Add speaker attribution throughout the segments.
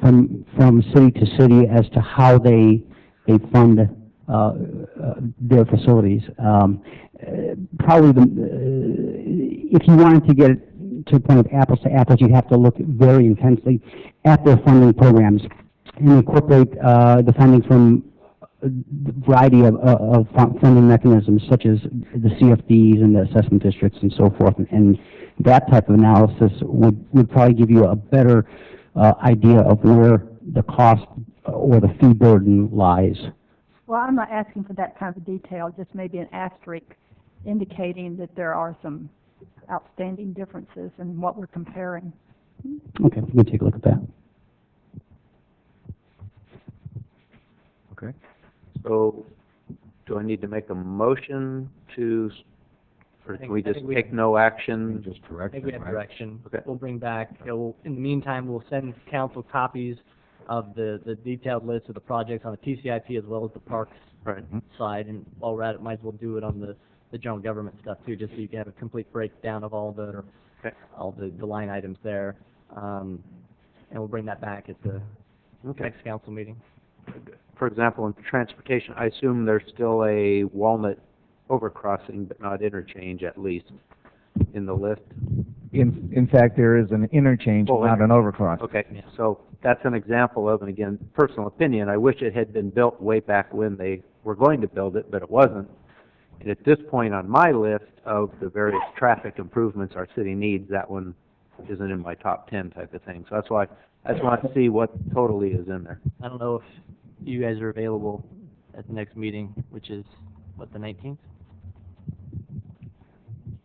Speaker 1: from, from city to city as to how they, they fund, uh, uh, their facilities. Um, uh, probably the, uh, if you wanted to get it to the point of apples to apples, you'd have to look very intensely at their funding programs and incorporate, uh, the funding from a variety of, uh, of fun- funding mechanisms such as the CFDs and the assessment districts and so forth. And that type of analysis would, would probably give you a better, uh, idea of where the cost or the fee burden lies.
Speaker 2: Well, I'm not asking for that kind of detail, just maybe an asterisk indicating that there are some outstanding differences in what we're comparing.
Speaker 1: Okay, we can take a look at that.
Speaker 3: Okay, so, do I need to make a motion to, s- or can
Speaker 4: think-
Speaker 3: we
Speaker 4: I
Speaker 3: just
Speaker 4: think we-
Speaker 3: take no action?
Speaker 5: Just
Speaker 4: I think
Speaker 5: direction,
Speaker 4: we have
Speaker 5: right?
Speaker 4: direction.
Speaker 3: Okay.
Speaker 4: We'll bring back, you know, in the meantime, we'll send council copies of the, the detailed list of the projects on the TCIP as well as the parks
Speaker 3: Right,
Speaker 4: side, and while we're at it, might as well do it on the, the general government stuff too, just so you can have a complete breakdown of all the,
Speaker 3: Okay.
Speaker 4: all the, the line items there. Um, and we'll bring that back at the
Speaker 3: okay.
Speaker 4: next council meeting.
Speaker 3: For example, in transportation, I assume there's still a Walnut overcrossing, but not interchange at least, in the list?
Speaker 5: In, in fact, there is an interchange,
Speaker 3: Well,
Speaker 5: not an overcross.
Speaker 3: Okay,
Speaker 4: Yeah.
Speaker 3: so that's an example of, and again, personal opinion, I wish it had been built way back when they were going to build it, but it wasn't. And at this point on my list of the various traffic improvements our city needs, that one isn't in my top ten type of thing. So that's why, I just want to see what totally is in there.
Speaker 4: I don't know if you guys are available at the next meeting, which is, what, the nineteenth?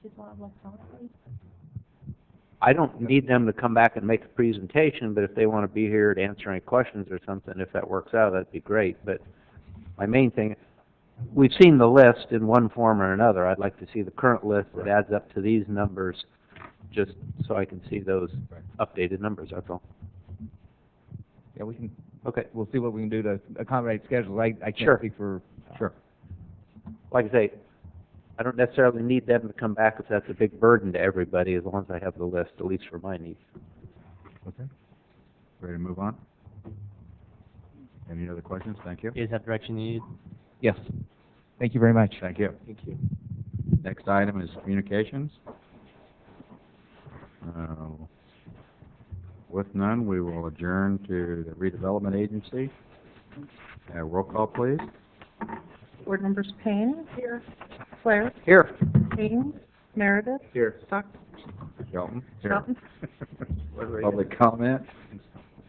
Speaker 2: Just want to electronically?
Speaker 3: I don't need them to come back and make a presentation, but if they want to be here to answer any questions or something, if that works out, that'd be great. But my main thing, we've seen the list in one form or another. I'd like to see the current list that adds up to these numbers, just so I can see those updated numbers, that's all.
Speaker 5: Yeah, we can,
Speaker 3: Okay,
Speaker 5: we'll see what we can do to accommodate schedules. I, I can't
Speaker 3: Sure.
Speaker 5: speak for. Sure.
Speaker 3: like I say, I don't necessarily need them to come back if that's a big burden to everybody, as long as I have the list, at least for my needs.
Speaker 5: Okay. Ready to move on? Any other questions? Thank you.
Speaker 4: You guys have direction you need?
Speaker 5: Yes. Thank you very much.
Speaker 6: Thank you.
Speaker 4: Thank you.
Speaker 6: Next item is communications. Uh, With none, we will adjourn to the redevelopment agency. Uh, Roll call, please.
Speaker 7: Board members Payne. Here. Claire.
Speaker 3: Here.
Speaker 7: Haynes. Meredith.
Speaker 3: Here.
Speaker 7: Stock.
Speaker 6: Shelton.
Speaker 7: Shelton.
Speaker 6: Public comment.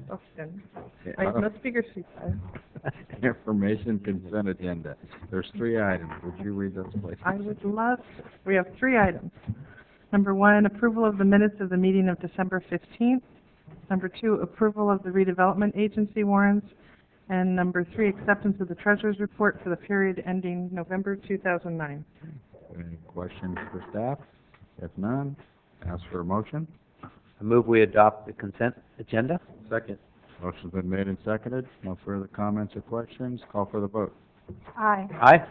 Speaker 7: Stockton.
Speaker 6: Yeah,
Speaker 7: Wait, no speaker seat.
Speaker 6: Information consent agenda. There's three items. Would you read those, please?
Speaker 7: I would love, we have three items. Number one, approval of the minutes of the meeting of December fifteenth. Number two, approval of the redevelopment agency warrants. And number three, acceptance of the treasurer's report for the period ending November two thousand nine.
Speaker 6: Any questions for staff? If none, ask for a motion.
Speaker 3: I move we adopt the consent agenda? Second.
Speaker 6: Motion's been made and seconded. No further comments or questions. Call for the vote.
Speaker 2: Aye.
Speaker 3: Aye?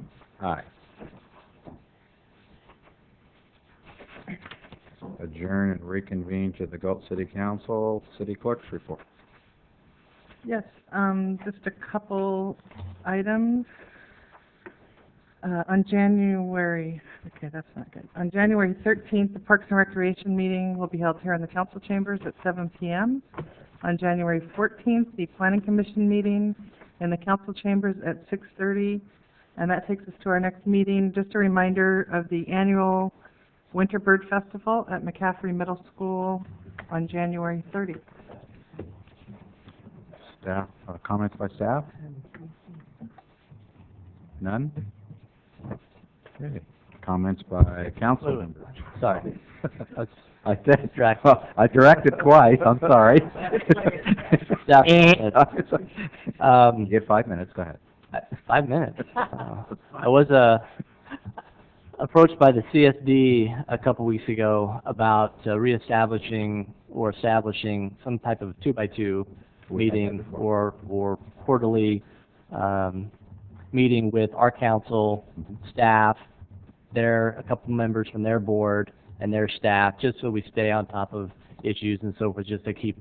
Speaker 3: Aye.
Speaker 6: Aye. Adjourn and reconvene to the Gulf City Council, City Clerk's report.
Speaker 7: Yes, um, just a couple items. Uh, on January, okay, that's not good. On January thirteenth, the Parks and Recreation meeting will be held here in the council chambers at seven PM. On January fourteenth, the Planning Commission meeting in the council chambers at six thirty. And that takes us to our next meeting. Just a reminder of the annual Winter Bird Festival at McCaffrey Middle School on January thirtieth.
Speaker 6: Staff, uh, comments by staff? None? Okay. Comments by council members?
Speaker 4: Sorry. I was
Speaker 6: I said,
Speaker 4: Distract.
Speaker 6: well, I directed twice, I'm sorry.
Speaker 4: Yeah.
Speaker 6: You
Speaker 4: Um,
Speaker 6: get five minutes, go ahead.
Speaker 4: five minutes. Uh, I was, uh, approached by the CSD a couple weeks ago about uh, reestablishing or establishing some type of two-by-two
Speaker 6: We had that
Speaker 4: meeting
Speaker 6: before.
Speaker 4: or, or quarterly, um, meeting with our council, staff, their, a couple members from their board and their staff, just so we stay on top of issues and so forth, just to keep